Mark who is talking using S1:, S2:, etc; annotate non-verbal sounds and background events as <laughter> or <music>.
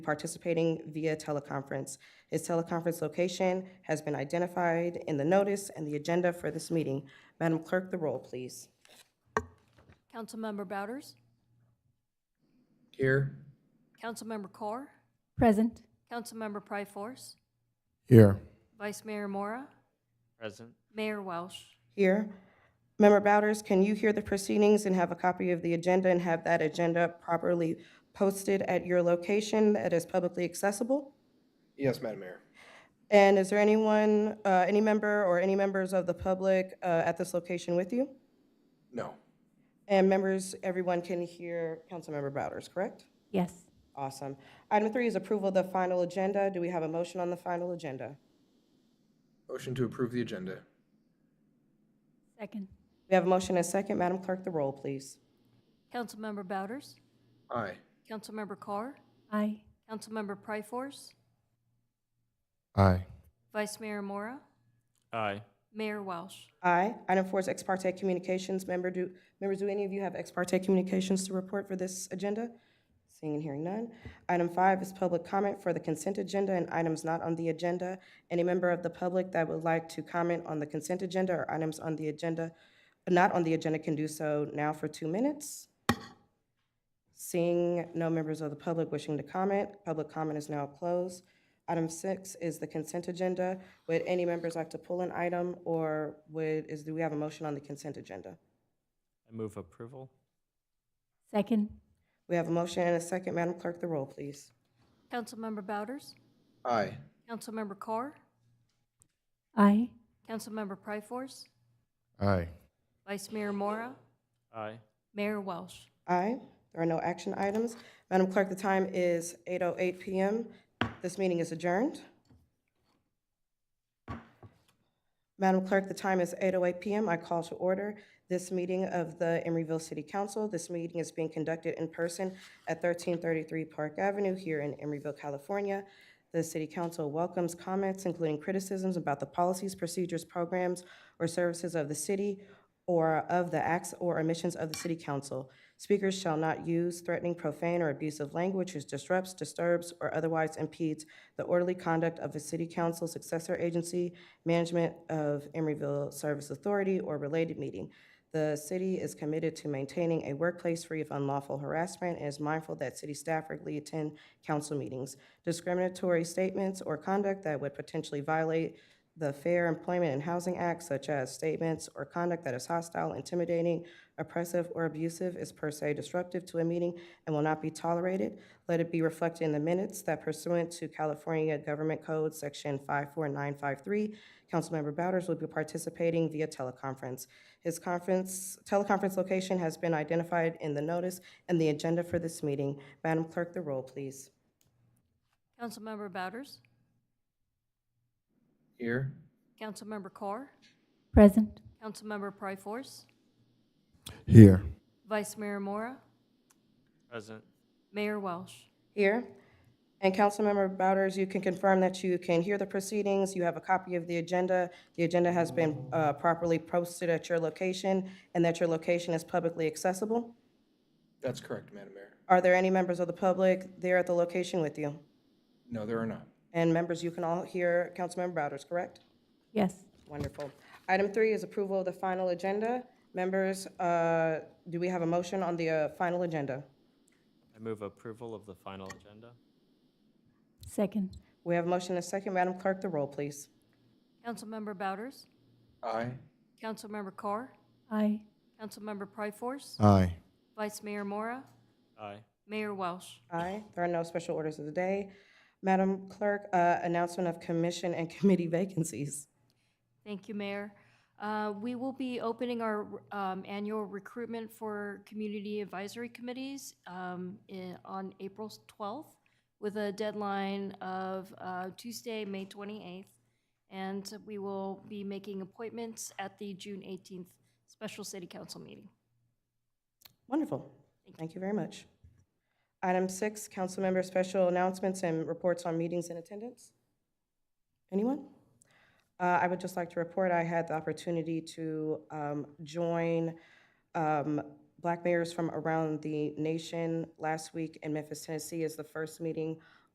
S1: participating via teleconference. His teleconference location has been identified in the notice and the agenda for this meeting. Madam Clerk, the roll, please.
S2: Councilmember Bouders?
S3: Here.
S2: Councilmember Carr?
S4: Present.
S2: Councilmember Pryforce?
S3: Here.
S2: Vice Mayor Mora?
S5: Present.
S2: Mayor Welsh?
S1: Here. Member Bowders, can you hear the proceedings and have a copy of the agenda and have that agenda properly posted at your location that is publicly accessible?
S3: Yes, Madam Mayor.
S1: And is there anyone, uh, any member or any members of the public uh, at this location with you?
S3: No.
S1: And members, everyone can hear Councilmember Bowders, correct?
S4: Yes.
S1: Awesome. Item three is approval of the final agenda. Do we have a motion on the final agenda?
S3: Motion to approve the agenda.
S4: Second.
S1: We have a motion and a second. Madam Clerk, the roll, please.
S2: Councilmember Bouders?
S3: Aye.
S2: Councilmember Carr?
S4: Aye.
S2: Councilmember Pryforce?
S3: Aye.
S2: Vice Mayor Mora?
S5: Aye.
S2: Mayor Welsh?
S1: Aye. Item four is ex parte communications. Member, do, members, do any of you have ex parte communications to report for this agenda? Seeing and hearing none. Item five is public comment for the consent agenda and items not on the agenda. Any member of the public that would like to comment on the consent agenda or items on the agenda, not on the agenda, can do so now for two minutes. Seeing no members of the public wishing to comment, public comment is now closed. Item six is the consent agenda. Would any members like to pull an item, or would, is, do we have a motion on the consent agenda?
S5: I move approval.
S4: Second.
S1: We have a motion and a second. Madam Clerk, the roll, please.
S2: Councilmember Bouders?
S3: Aye.
S2: Councilmember Carr?
S4: Aye.
S2: Councilmember Pryforce?
S3: Aye.
S2: Vice Mayor Mora?
S5: Aye.
S2: Mayor Welsh?
S1: Aye. There are no action items. Madam Clerk, the time is 8:08 PM. This meeting is adjourned. Madam Clerk, the time is 8:08 PM. I call to order this meeting of the Emeryville City Council. This meeting is being conducted in person at 1333 Park Avenue here in Emeryville, California. The City Council welcomes comments, including criticisms about the policies, procedures, programs, or services of the city or of the acts or omissions of the City Council. Speakers shall not use threatening, profane, or abusive language which disrupts, disturbs, or otherwise impedes the orderly conduct of a City Council successor agency, management of Emeryville Service Authority, or related meeting. The city is committed to maintaining a workplace free of unlawful harassment and is mindful that city staff regularly attend council meetings. Discriminatory statements or conduct that would potentially violate the Fair Employment and Housing Act, such as statements or conduct that is hostile, intimidating, oppressive, or abusive, is per se disruptive to a meeting and will not be tolerated. Let it be reflected in the minutes that pursuant to California Government Code, Section 54953, Councilmember Bowders will be participating via teleconference. His conference, teleconference location has been identified in the notice and the agenda for this meeting. Madam Clerk, the roll, please.
S2: Councilmember Bouders?
S3: Here.
S2: Councilmember Carr?
S4: Present.
S2: Councilmember Pryforce?
S3: Here.
S2: Vice Mayor Mora?
S5: Present.
S2: Mayor Welsh?
S1: Here. And Councilmember Bowders, you can confirm that you can hear the proceedings, you have a copy of the agenda, the agenda has been uh, properly posted at your location, and that your location is publicly accessible?
S3: That's correct, Madam Mayor.
S1: Are there any members of the public there at the location with you?
S3: No, there are not.
S1: And members, you can all hear Councilmember Bowders, correct?
S4: Yes.
S1: Wonderful. Item three is approval of the final agenda. Members, uh, do we have a motion on the uh, final agenda?
S5: I move approval of the final agenda.
S4: Second.
S1: We have a motion and a second. Madam Clerk, the roll, please.
S2: Councilmember Bouders?
S3: Aye.
S2: Councilmember Carr?
S4: Aye.
S2: Councilmember Pryforce?
S3: Aye.
S2: Vice Mayor Mora?
S5: Aye.
S2: Mayor Welsh?
S1: Aye. There are no special orders of the day. Madam Clerk, uh, announcement of commission and <laughs> committee vacancies.
S2: Thank you, Mayor. Uh, We will be opening our um, annual recruitment for community advisory committees um, in- on April 12th with a deadline of uh, Tuesday, May 28th. And we will be making appointments at the June 18th special city council meeting.
S1: Wonderful. Thank you very much. Item six, council member special announcements and reports on meetings and attendance. Anyone? Uh, I would just like to report, I had the opportunity to um, join um, black mayors from around the nation last week in Memphis, Tennessee, is the first meeting